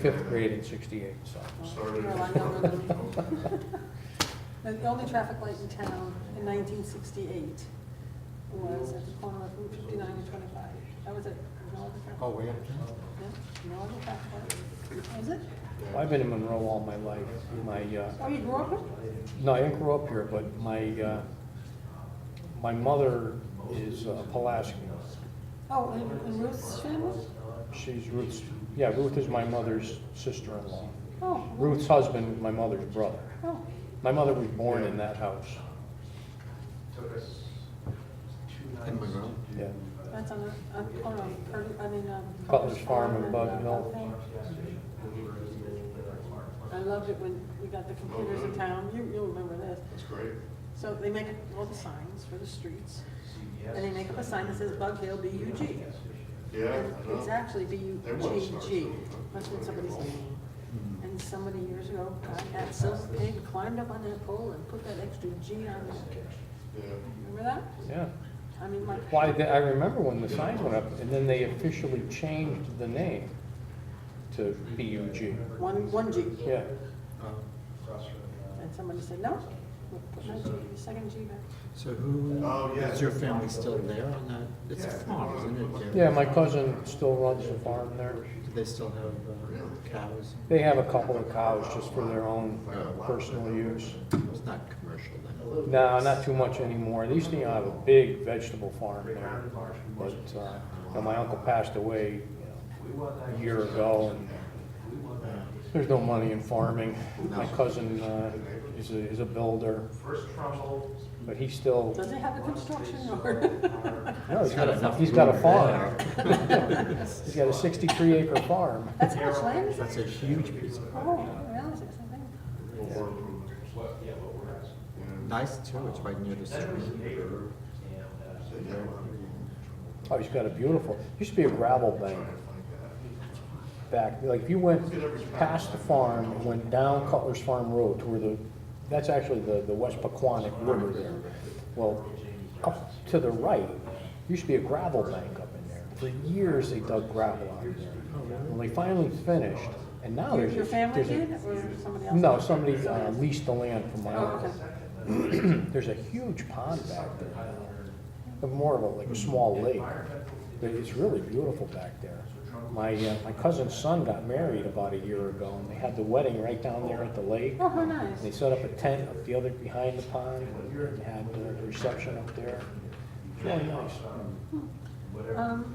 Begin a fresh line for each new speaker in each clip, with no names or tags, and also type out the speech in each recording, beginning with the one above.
fifth grade in sixty-eight, so.
Started.
No, I know, no, no. The the only traffic light in town in 1968 was at the corner of Route 59 and 25. That was it. No other traffic.
Oh, yeah.
Yeah, No other traffic light. Was it?
I've been in Monroe all my life. My, uh,
Oh, you grew up in?
no, I didn't grow up here, but my, uh, my mother is uh, Pulaski.
Oh, in- in Ruth's family?
She's Ruth's, yeah, Ruth is my mother's sister-in-law.
Oh.
Ruth's husband, was my mother's brother.
Oh,
My mother was born in that house.
In Monroe?
Yeah.
that's on, the- on, oh, no, Curtis- I mean, um.
Butler's Farm and Bug
uh,
Hill.
Bug Hill. I loved it when we got the computers in town. You, you'll remember this.
That's great.
So they make all the signs for the streets. And they make up a sign that says Bug Hill B-U-G.
Yeah,
And
I know.
It's actually
They want to start
B-U-G-G.
something.
Must have been somebody's name. And somebody years ago, got at Silver Pig, climbed up on that pole and put that extra G on there.
Yeah.
Remember that?
Yeah.
I mean, my.
Why, they- I remember when the signs went up, and then they officially changed the name to BUG.
One, one G.
Yeah.
And somebody said, no, we'll put my G, the second G back.
So who,
Oh, yeah.
is your family still there on that? It's a farm, isn't it? Jim?
Yeah, my cousin still runs the farm there.
Do they still have uh, cows?
They have a couple of cows just for their own personal use.
It's not commercial then.
No, not too much anymore. They used to have a big vegetable farm there, but, uh, you know, my uncle passed away a year ago, and there's no money in farming. My cousin, uh, is a, is a builder,
First trouble.
but he still,
Does it have a construction yard?
no, he's got a,
enough
he's got a
room
farm.
there.
He's got a sixty-three acre farm.
That's how much land is that?
That's a huge piece of,
Oh, I didn't realize it was that big.
Or improvement.
Yeah, what we're asking.
Yeah.
nice too, it's right near the street.
neighbor and, uh,
They get a lot of people
Oh, he's got a beautiful, used to be a gravel bank.
trying to find that.
back, like if you went past the farm and went down Cutler's Farm Road to where the, that's actually the, the West Paquonic River there. Well, up to the right, used to be a gravel bank up in there. For years, they dug gravel out of there. Well, they finally finished, and now
Your-
Oh, there's. a-
Your family
there's a-
did, or somebody else?
No, somebody uh, leased the land from my
Oh, okay.
uncle. There's a huge pond back there, now. more of a, like a small lake. But It's really beautiful back there. My, uh, my cousin's son got married about a year ago, and they had the wedding right down there at the lake.
Oh, how
And they
nice.
set up a tent up the other, behind the pond, and had uh, the reception up there. It's really nice.
Because Um,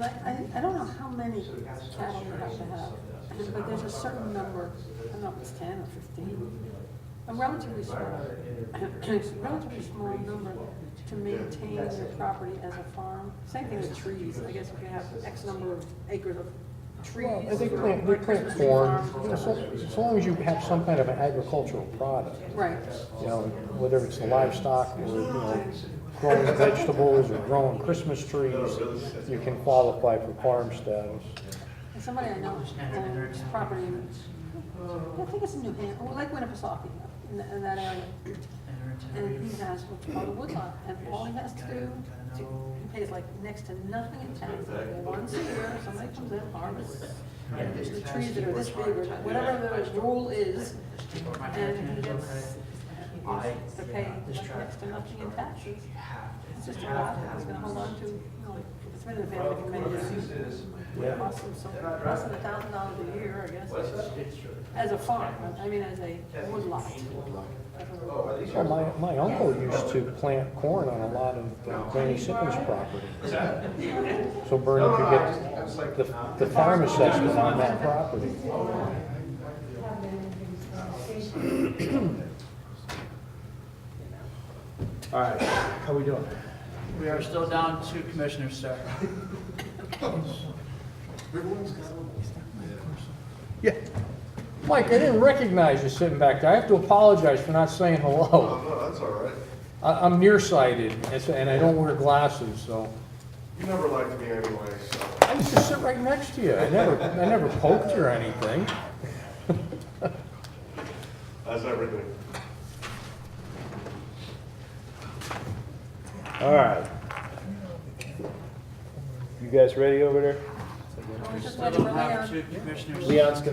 I, I, I don't know how many cattle you have to have, but there's a certain number, I don't know if it's ten or fifteen, a relatively small, it's a relatively small number to maintain your property as a farm. Same thing with trees, I guess if you have X number of acres of trees.
And they plant, they plant corn, You know, so- as long as you have some kind of an agricultural product.
Right,
you know, whether it's the livestock or, you know, growing vegetables or growing Christmas trees, you can qualify for farm status.
and somebody I know owns property, in- I think it's in New Hampshire, or like Winnipesaukee, in that- in that area. And he has what's called a woodlot, and all he has to do, to- he pays like next to nothing in tax, like once a year, somebody comes in, harvests. And there's the trees that are this big, or whatever the rule is, and he gets, to pay like next to nothing in taxes. It's just a lot that he's gonna hold on to, you know, it's been in the family for many years. It Costs him some, costs him a thousand dollars a year, I guess, as a farm, I mean, as a woodlot.
Well, my, my uncle used to plant corn on a lot of uh, Granny Sippin's property. So Vernon could get the, the farm assessment on that property.
All right, how we doing?
We are still down two commissioners, sir.
Yeah. Mike, I didn't recognize you sitting back there. I have to apologize for not saying hello.
Oh, no, that's all right.
I, I'm nearsighted, and so- and I don't wear glasses, so.
You never liked me anyway, so.
I used to sit right next to you. I never, I never poked you or anything.
That's everything.
All right. You guys ready over there?
Just
Still
let it
don't
run out.
have two commissioners.
Leon's gonna